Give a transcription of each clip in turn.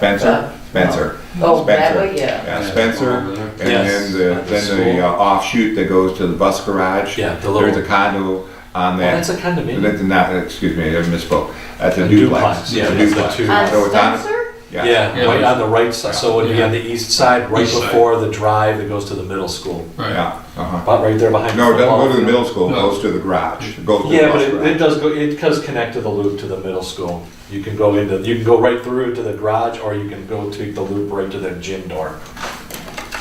Spencer, Spencer. Oh, that Spencer. way, yeah. Yeah, Spencer, Yeah. and then the, Yes. then the uh, offshoot that goes to the bus garage. Yeah, the There's little- a condo on Well, that's that. a condominium. That's not, excuse me, I misspoke. That's a A duplex. duplex, yeah, It's a that's the duplex. two. On So it's on- Spencer? Yeah, right on the right side, so it would be on the east side, right East side. before the drive that goes to the middle school. Right. Yeah, uh-huh. About right there behind. No, it the doesn't go to the football middle school, it No. goes to the garage, It goes to the Yeah, but bus it, it garage. does go, it does connect to the loop to the middle school. You can go into, you can go right through to the garage, or you can go to the loop right to the gym door.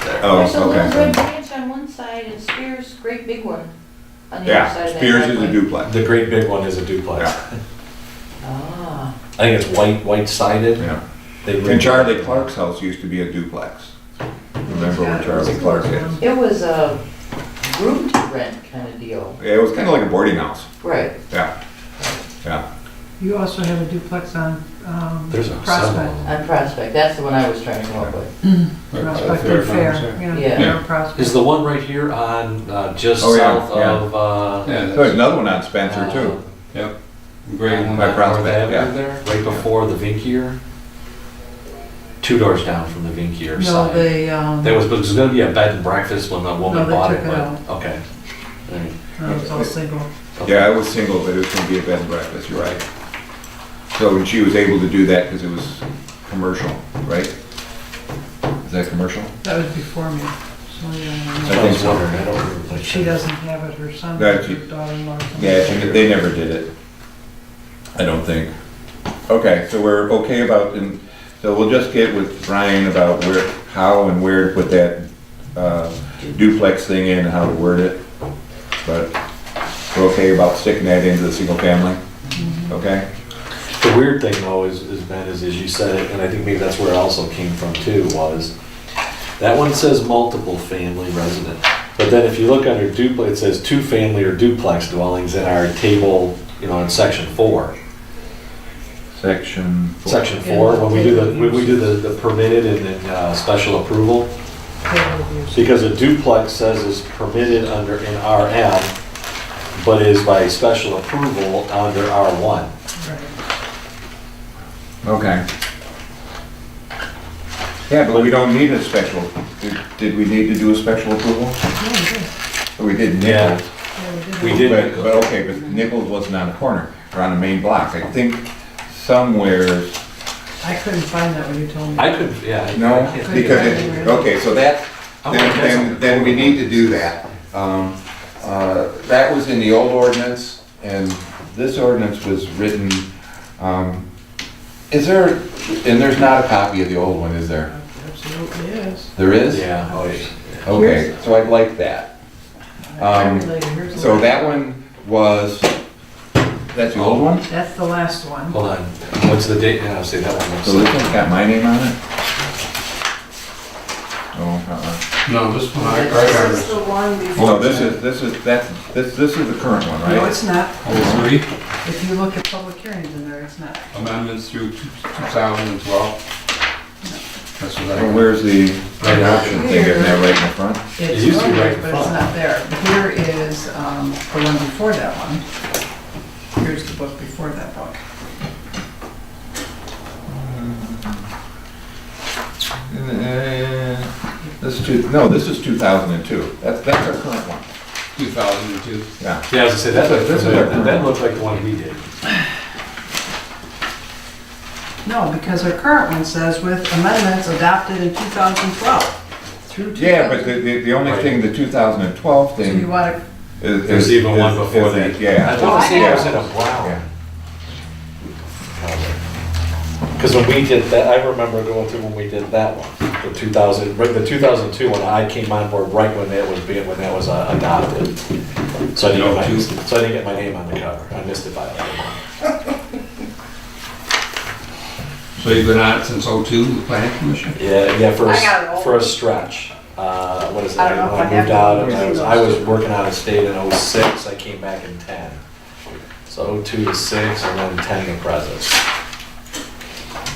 There's a Oh, little okay. red branch on one side and Spears, great big one, on the other side Yeah, of that Spears is a driveway. duplex, The great big one is a duplex. Ah, I think it's white, white sided. yeah. And Charlie Clark's house used to be a duplex. Remember where Charlie Clark is? it was a room to rent kind of deal. It was kind of like a boarding house, Right. yeah, yeah. You also have a duplex on um, There's a Prospect, seven. On Prospect, that's the one I was trying to come up with. Prospect and Fair, yeah, Yeah. Fair Prospect. Is the one right here on, uh, just Oh, yeah, south yeah. of, uh. Yeah, There's that's another one on Spencer too. great on one. By North Prospect, yeah. Avenue there, right before the Vinkier. Two doors down from the Vinkier No, side. they, um, There was, there was gonna be a bed and breakfast when the woman they bought took it, it but, okay. All right. no, it was all single. Okay. Yeah, I was single, but it was gonna be a bed and breakfast, you're right. So, and she was able to do that because it was commercial, right? Is that commercial? That was before me. So, yeah, I I think was so. wondering, I don't remember. no. what She it- doesn't have it, her son, No, her she- daughter-in-law. Yeah, she- they never did it. I don't think. Okay, so we're okay about, and, so we'll just get with Brian about where, how and where to put that uh, duplex thing in, and how to word it. But we're okay about sticking that into the single family? Okay? The weird thing though is, is Ben, is as you said it, and I think maybe that's where it also came from too, was that one says multiple family resident. But then if you look under duplex, it says two family or duplex dwellings in our table, you know, in section four. Section. four. Section four, when we do the, when we do the the permitted and then uh, special approval, because a duplex says is permitted under an RM, but is by special approval under R1. Okay. Yeah, but we don't need a special, did- did we need to do a special approval? We did Yeah. Nichols. We But- did, But, okay, but Nichols wasn't on the corner, or on the main block. I think somewhere, I couldn't find that when you told me. I could, yeah. I- I no, can't- because it, okay, so that, Oh, then, that's then, something. then we need to do that. Um, uh, that was in the old ordinance, and this ordinance was written, um, is there, and there's not a copy of the old one, is there? Absolutely is. There is? Yeah, oh, yeah. Okay, so I'd like that. I Um, related. Here's the So one. that one was, that's the old one? That's the last one. Hold on, what's the date? Yeah, I'll say that one. So this one's got my name on it? Oh, uh-uh. No, this one, I, I, This is the one before. Well, this is, this is, that's, this, this is the current one, No, right? it's not. I- three If you look at public hearings in there, it's not. amendments through two thousand and twelve. That's what Well, I, where's the right option thing, isn't that right in the front? It's used to be right noted, in but it's front. not there. Here is um, the one before that one. Here's the book before that book. Uh, This is two, no, this is two thousand and two. That's, that's our current one, two thousand and two. yeah. Yeah, I was gonna say, that's what, This that's is- what, that looked like the one we did. No, because our current one says with amendments adopted in 2012 through 2000. Yeah, but the, the, the only thing, the two thousand and twelve So you thing want to, is. is- There's even one is- is before that, that. I Yeah. "Oh, thought the Yeah. same was in a Yeah. brown. Cause when we did that, I remember going through when we did that one, the two thousand, right, the two thousand two one, I came on board right when that was being, when that was uh, adopted. So I didn't get my, so I didn't get my name on the cover, I missed it by a little. So you've been on it since oh two, the planning commission? Yeah, yeah, for, a I s- got it. for a stretch. Uh, what is it? I don't know if When I I moved have out, it. I was, I was working out of state in '06. I came back in ten. So '02 to six and then ten to present.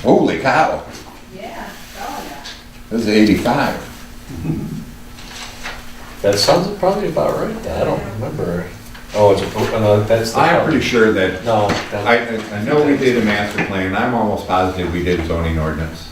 Holy cow, Yeah, oh, yeah. this is eighty-five. That sounds probably about right. I don't remember. Oh, it's, a- oh, no, that's the. I'm pretty sure that No. I, that- I- I know we did a master plan, I'm almost positive we did zoning ordinance.